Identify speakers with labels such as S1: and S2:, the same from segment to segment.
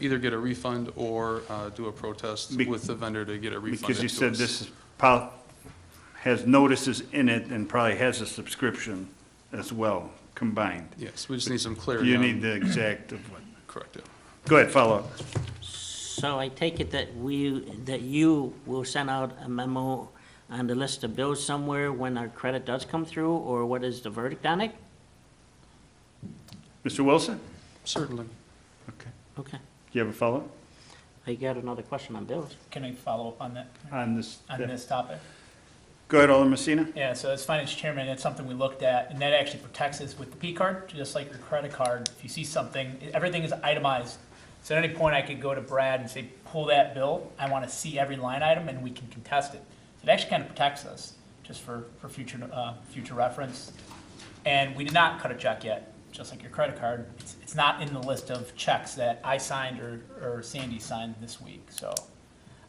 S1: either get a refund or uh, do a protest
S2: Be-
S1: with the vendor to get a refund.
S2: Because you
S1: to
S2: said
S1: us.
S2: this is, pol- has notices in it and probably has a subscription as well, combined.
S1: Yes, we just need some clarity.
S2: You
S1: on-
S2: need the exact, of what-
S1: Correct, yeah.
S2: go ahead, follow up.
S3: So I take it that we, that you will send out a memo on the list of bills somewhere when our credit does come through, or what is the verdict on it?
S2: Mr. Wilson?
S1: Certainly.
S2: Okay.
S3: Okay,
S2: Do you have a follow-up
S3: I got another question on bills.
S4: Can I follow up on that,
S2: on this?
S4: on this topic?
S2: Go ahead, Alderman Messina.
S4: Yeah, so as finance chairman, that's something we looked at, and that actually protects us with the P card, just like your credit card. If you see something, everything is itemized. So at any point, I could go to Brad and say, pull that bill, I want to see every line item, and we can contest it. So it actually kind of protects us, just for, for future, uh, future reference. And we did not cut a check yet, just like your credit card. It's, it's not in the list of checks that I signed or, or Sandy signed this week, so.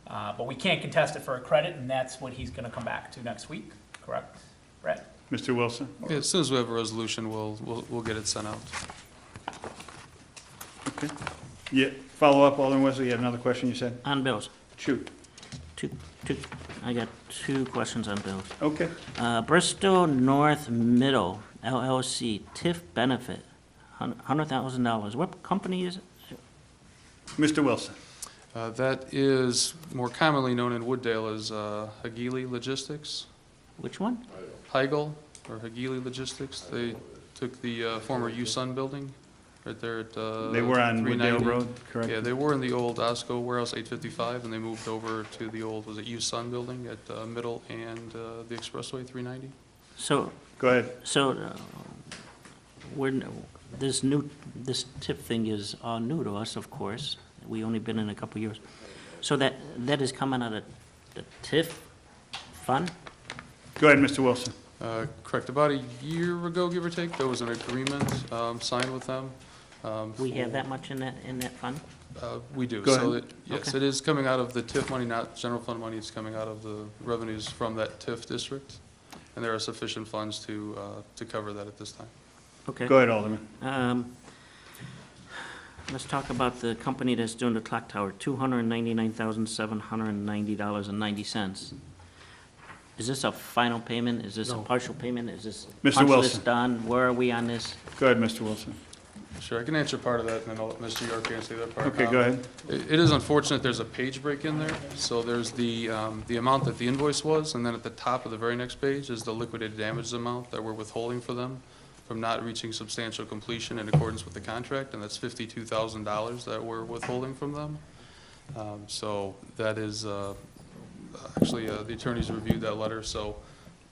S4: Uh, but we can't contest it for a credit, and that's what he's gonna come back to next week, correct? Brett?
S2: Mr. Wilson?
S1: Yeah, As soon as we have a resolution, we'll, we'll, we'll get it sent out.
S2: Okay. Yeah, follow up, Alderman Wesley, you had another question you said?
S3: On bills,
S2: Shoot.
S3: two, two, I got two questions on bills.
S2: Okay.
S3: Uh, Bristol North Middle LLC TIF benefit, hun- $100,000. What company is it?
S2: Mr. Wilson?
S1: Uh, That is more commonly known in Wooddale as uh, Hagili Logistics,
S3: Which one?
S1: Heigel, or Hagili Logistics. They took the uh, former USUN building right there at uh,
S2: They were on Wooddale
S1: 390.
S2: Road, correct?
S1: Yeah, they were in the old Osco warehouse, 855, and they moved over to the old, was it USUN building at uh, Middle and uh, the Expressway 390?
S3: So,
S2: Go ahead.
S3: so uh, we're, n- this new, this TIF thing is all new to us, of course. We only been in a couple years. So that, that is coming out of the TIF fund?
S2: Go ahead, Mr. Wilson.
S1: Uh, Correct, about a year ago, give or take, there was an agreement um, signed with them. um,
S3: We have
S1: for-
S3: that much in that, in that fund?
S1: Uh, We do.
S2: Go
S1: So
S2: ahead.
S1: it- Yes,
S3: Okay.
S1: it is coming out of the TIF money, not general fund money. It's coming out of the revenues from that TIF district, and there are sufficient funds to, uh, to cover that at this time.
S3: Okay.
S2: Go ahead, Alderman.
S3: Um, Let's talk about the company that's doing the clock tower, two hundred and ninety-nine thousand, seven hundred and ninety dollars and ninety cents. Is this a final payment? Is this a partial payment? Is this?
S2: Mr.
S3: punch list
S2: Wilson.
S3: Done? Where are we on this?
S2: Go ahead, Mr. Wilson.
S1: Sure, I can answer part of that, and then I'll let Mr. York answer the other part.
S2: Okay,
S1: Um,
S2: go ahead.
S1: It it is unfortunate, there's a page break in there. So there's the, um, the amount that the invoice was, and then at the top of the very next page is the liquidated damages amount that we're withholding for them from not reaching substantial completion in accordance with the contract, and that's fifty-two thousand dollars that we're withholding from them. Um, So that is, uh, actually, uh, the attorneys reviewed that letter, so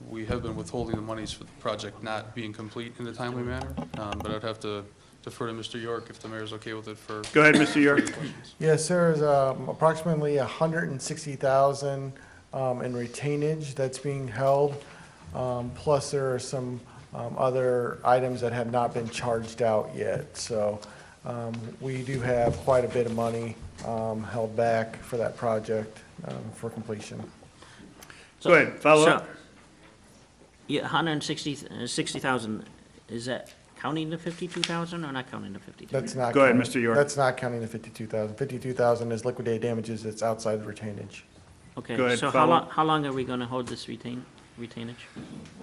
S1: we have been withholding the monies for the project not being complete in a timely manner. Um, But I'd have to defer to Mr. York if the mayor's okay with it for
S2: Go ahead, Mr. York.
S5: Yes, there is um, approximately hundred and sixty thousand um, in retainage that's being held. Um, plus, there are some um, other items that have not been charged out yet. So, um, we do have quite a bit of money um, held back for that project um, for completion.
S2: Go ahead, follow up.
S3: So- Yeah, hundred and sixty, sixty thousand, is that counting the fifty-two thousand or not counting the fifty-two?
S5: That's not.
S2: Go ahead,
S5: counting-
S2: Mr. York.
S5: That's not counting the fifty-two thousand. Fifty-two thousand is liquidated damages that's outside the retainage.
S3: Okay,
S2: Go ahead,
S3: so how
S2: follow.
S3: long, how long are we gonna hold this retain, retainage?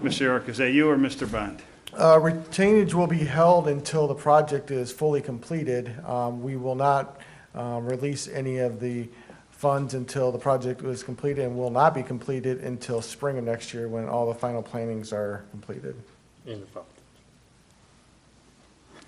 S2: Mr. York, is that you or Mr. Bond?
S5: Uh, Retainage will be held until the project is fully completed. Um, We will not uh, release any of the funds until the project is completed and will not be completed until spring of next year when all the final plannings are completed.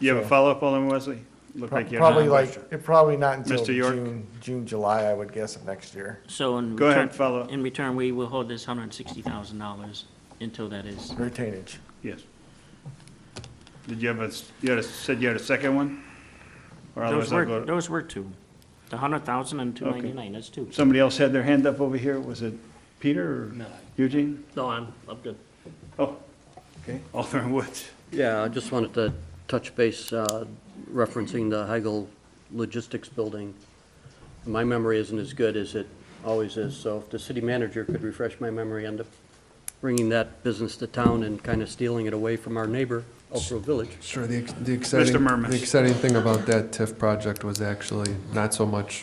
S2: You have a follow-up, Alderman Wesley? Looked like you had another
S5: Probably like,
S2: question.
S5: it probably not until
S2: Mr. York?
S5: June, June, July, I would guess, of next year.
S3: So in return.
S2: Go ahead, follow up.
S3: In return, we will hold this hundred and sixty thousand dollars until that is.
S5: Retainage.
S2: Yes. Did you have a, s- you had a, said you had a second one? Or
S3: Those
S2: otherwise I'll
S3: were,
S2: go,
S3: those were two. The hundred thousand and two ninety-nine, that's two.
S2: somebody else had their hand up over here, was it Peter or Eugene?
S6: No, I'm, I'm good.
S2: Oh, okay, Alderman Woods.
S6: Yeah, I just wanted to touch base uh, referencing the Heigel Logistics Building. My memory isn't as good as it always is, so if the city manager could refresh my memory, end up bringing that business to town and kind of stealing it away from our neighbor Oak Grove Village.
S7: Sure, the ex- the exciting,
S2: Mermis.
S7: the exciting thing about that TIF project was actually not so much